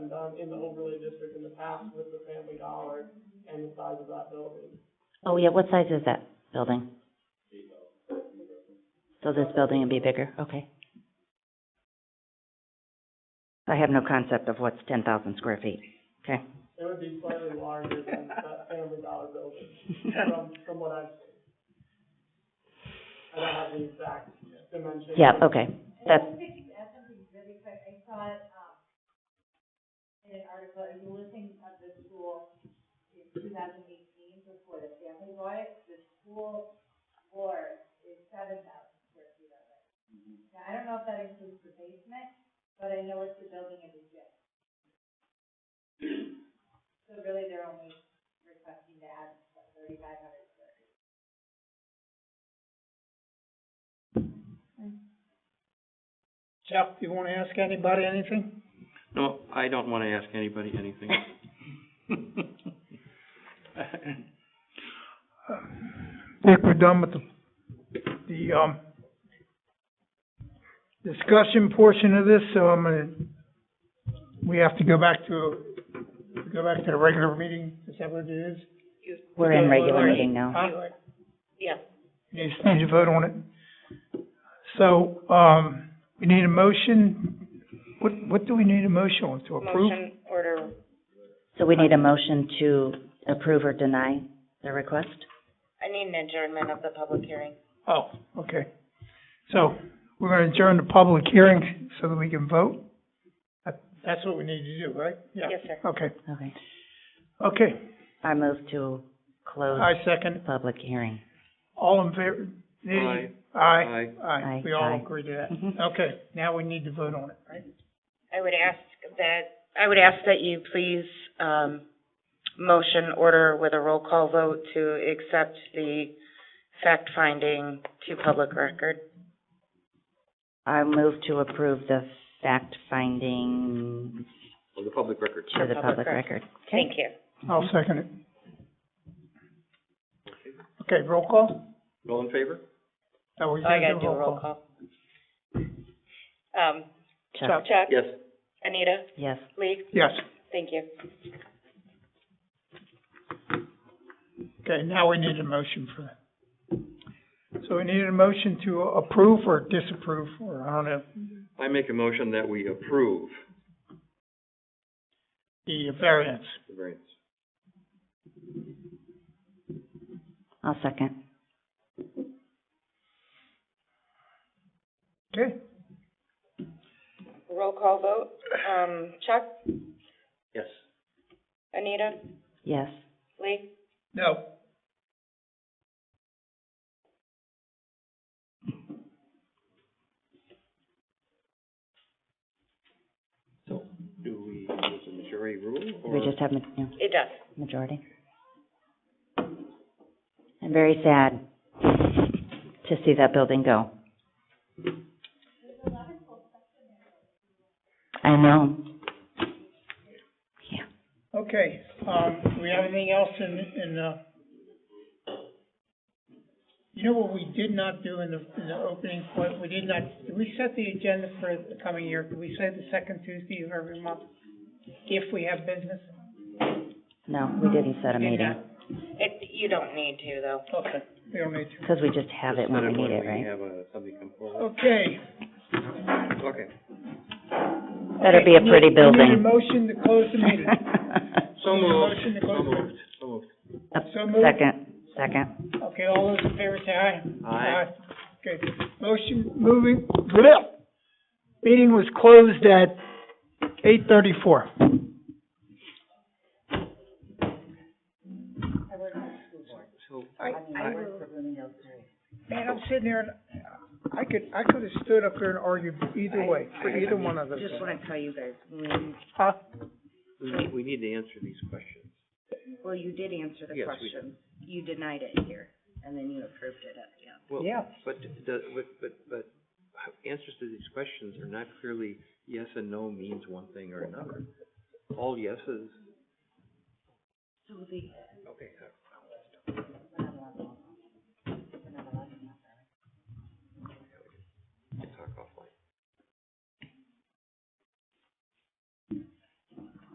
um, in the overlay district in the past with the Family Dollar and the size of that building. Oh, yeah, what size is that building? So this building would be bigger, okay. I have no concept of what's ten thousand square feet, okay? It would be slightly larger than that Family Dollar building from, from what I've seen. I don't have the exact dimensions. Yeah, okay, that's, Jeff, you wanna ask anybody anything? No, I don't want to ask anybody anything. I think we're done with the, the, um, discussion portion of this, so I'm gonna, we have to go back to, go back to the regular meeting, is that what it is? we're in regular meeting now. Huh? You just need to vote on it. So, um, we need a motion, what, what do we need a motion on, to approve? Motion order, So we need a motion to approve or deny the request? I need an adjournment of the public hearing. Oh, okay. So, we're gonna adjourn the public hearing so that we can vote? That- That's what we need to do, right? Yeah. Yes, sir. Okay, Okay. okay. I move to close I the second. public hearing. All in favor? Aye. Aye, Aye. aye. We all Aye. agree to Mhm. that. Okay, now we need to vote on it, right? I would ask that, I would ask that you please, um, motion order with a roll call vote to accept the fact finding to public record. I move to approve the fact finding Well, the public record. to the public record. Okay. Thank you. I'll Mm-hmm. second it. Okay, roll call? All in favor? Oh, we Oh, I did gotta do a roll call. Um, Chuck, Chuck? Yes. Anita? yes. Lee? Yes. Thank you. Okay, now we need a motion for that. So we need a motion to approve or disapprove, or I don't know, I make a motion that we approve the variance. the variance. I'll second. Okay, Roll call vote, um, Chuck? Yes. Anita? Yes. Lee? no, So do we use the majority rule or? We just have ma- yeah, It does. majority. I'm very sad to see that building go. I know. Yeah. okay, um, do we have anything else in, in, uh, you know what we did not do in the, in the opening point, we did not, did we set the agenda for the coming year? Did we say the second Tuesday of every month, if we have business? No, we didn't set a Did meeting not. It, you don't need to, though. Okay, we don't need to. because we just have it Just when set we need it, We right? have, uh, somebody come forward. Okay. Okay. Better be a Okay, pretty we need- we need a building. motion to close the meeting. So Need a moved. motion to close So the meeting. moved. So moved. So moved. Second, second. Okay, all those in favor say aye. Aye. Okay, motion moving, bleh. Meeting was closed at eight thirty-four. So I, I, Man, I'm sitting here and I could, I could have stood up here and argued either way, for either one of those. Just wanna tell you guys, when Huh? we need, we need to answer these questions. Well, you did answer the Yes, we did. question. You denied it here, and then you approved it at the end. Well, Yeah. But, the- but, but, but answers to these questions are not clearly yes and no means one thing or another. All yeses. Okay, uh,